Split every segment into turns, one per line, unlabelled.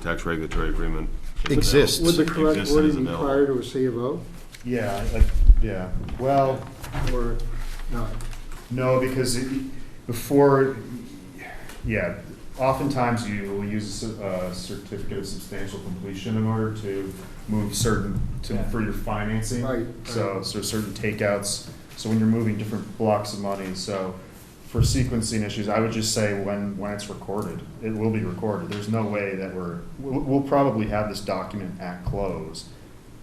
tax regulatory agreement. is anal-
Exists.
Would the correct
exists and is
wording be
available.
prior to a C of O
Yeah, like, yeah, well,
or not?
no, because it- before, yeah, oftentimes you will use a cer- a certificate of substantial completion in order to move certain, to,
Yeah.
for your financing.
Right,
So,
right.
so certain takeouts, so when you're moving different blocks of money, so for sequencing issues, I would just say when, when it's recorded, it will be recorded. There's no way that we're, we'll, we'll probably have this document at close.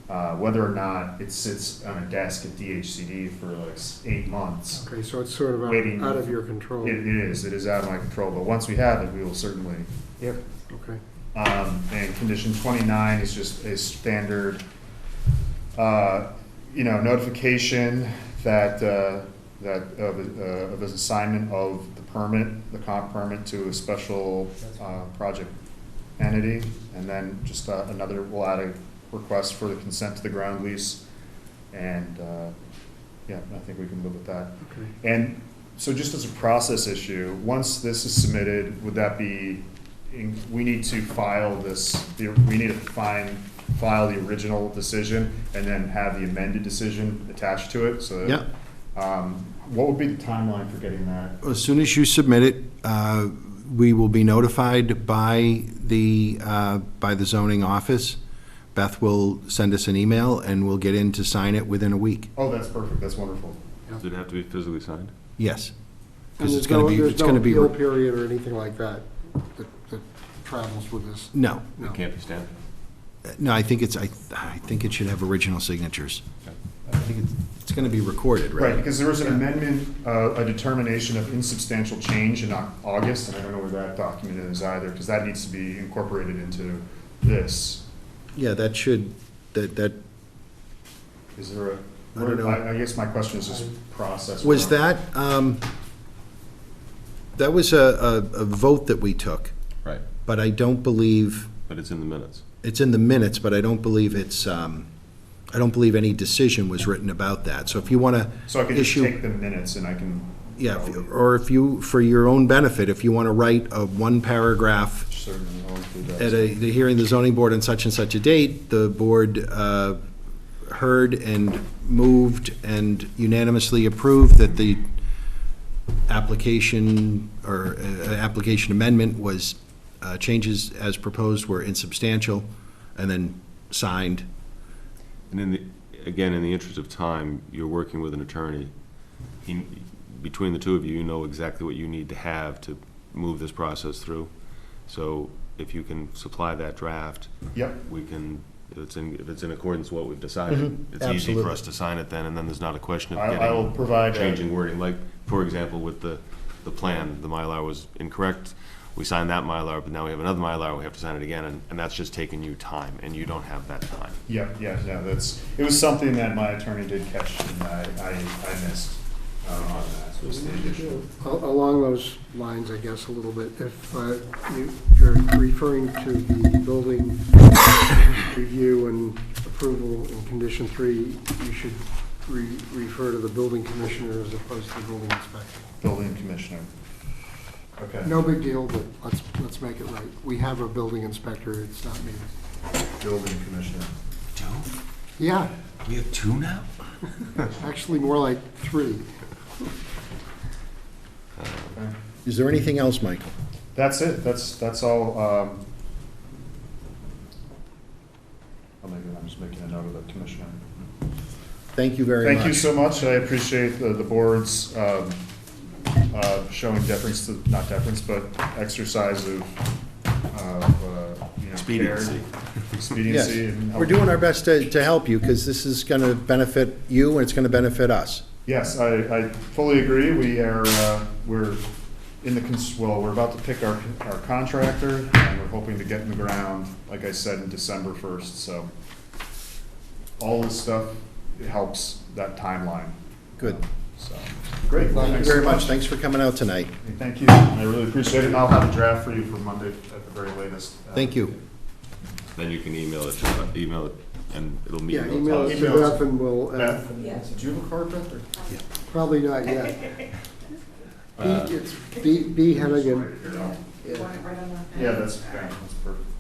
Uh, whether or not it sits on a desk at DHCD for like s- eight months.
Okay, so it's sort of
Waiting.
out- out of your control.
It, it is, it is out of my control, but once we have it, we will certainly. Yep.
Okay.
Um, and condition twenty-nine is just a standard, uh, you know, notification that, uh, that, of, uh, of this assignment of the permit, the comp permit to a special, uh, project entity. And then just uh, another, we'll add a request for the consent to the ground lease. And, uh, yeah, I think we can live with that.
Okay.
And so just as a process issue, once this is submitted, would that be, in- we need to file this, the- we need to find, file the original decision and then have the amended decision attached to it, so.
Yeah.
Um, what would be the timeline for getting that?
As soon as you submit it, uh, we will be notified by the, uh, by the zoning office. Beth will send us an email, and we'll get in to sign it within a week.
Oh, that's perfect, that's wonderful.
Does it have to be physically signed?
Yes.
And
'Cause it's
there's
gonna
no-
be-
there's
it's gonna
no
be-
appeal period or anything like that that that travels with this?
No,
No.
It can't be stamped?
no, I think it's, I, I think it should have original signatures. I think it's, it's gonna be recorded,
Right,
right?
because there was an amendment, uh, a determination of insubstantial change in Au- August, and I don't know where that document is either, because that needs to be incorporated into this.
Yeah, that should, that, that,
Is there a,
I don't know.
I, I guess my question is just process.
was that, um, that was a, a, a vote that we took,
Right.
but I don't believe,
But it's in the minutes.
it's in the minutes, but I don't believe it's, um, I don't believe any decision was written about that. So if you wanna
So I could just
issue-
take the minutes and I can.
Yeah, if- or if you, for your own benefit, if you wanna write a one-paragraph
Certainly, I'll include that.
at a, the hearing of the zoning board on such and such a date, the board uh, heard and moved and unanimously approved that the application or uh, application amendment was, uh, changes as proposed were insubstantial, and then signed.
And in the, again, in the interest of time, you're working with an attorney. He- Between the two of you, you know exactly what you need to have to move this process through. So if you can supply that draft,
Yep,
we can, if it's in, if it's in accordance with what we've decided, it's easy for
absolutely.
us to sign it then, and then there's not a question
Mm-hmm. I,
of
I will
getting,
provide. a-
changing wording. Like, for example, with the, the plan, the Mylar was incorrect. We signed that Mylar, but now we have another Mylar, we have to sign it again, and, and that's just taking you time, and you don't have that time.
Yep, yeah, no, that's, it was something that my attorney did catch and I, I, I missed uh, on that, was the additional.
A- Along those lines, I guess, a little bit, if uh, you- you're referring to the building review and approval in condition three, you should re- refer to the building commissioner as opposed to the building inspector.
Building commissioner. Okay.
No big deal, but let's, let's make it right. We have a building inspector, it's not me.
Building commissioner.
Two?
Yeah,
We have two now?
actually more like three.
Okay.
Is there anything else, Michael?
That's it, that's, that's all, um. Oh, maybe I'm just making a note of the commissioner.
Thank you very much.
Thank you so much. I appreciate the, the board's, um, uh, showing deference to, not deference, but exercise of, of, uh, you know.
Expediency.
care,
Yes,
Expediency. and-
we're doing our best to, to help you, because this is gonna benefit you, and it's gonna benefit us.
Yes, I, I fully agree. We are, uh, we're in the, cons- well, we're about to pick our, our contractor, and we're hoping to get in the ground, like I said, in December first, so. All this stuff it helps that timeline. Um,
Good.
So, great.
Thank you
Thanks
very
so
much, thanks for coming out tonight.
Hey, Thank you. I really appreciate it, and I'll have a draft for you for Monday at the very latest.
Thank you.
Then you can email it, to- uh, email it, and it'll meet.
Yeah,
and it'll
email
tell
it
us.
to
Emails.
Beth and we'll, uh,
Beth, is it Jubal Beth, or?
probably not yet. B, it's B, B Hennigan.
Yeah, that's, yeah, that's perfect.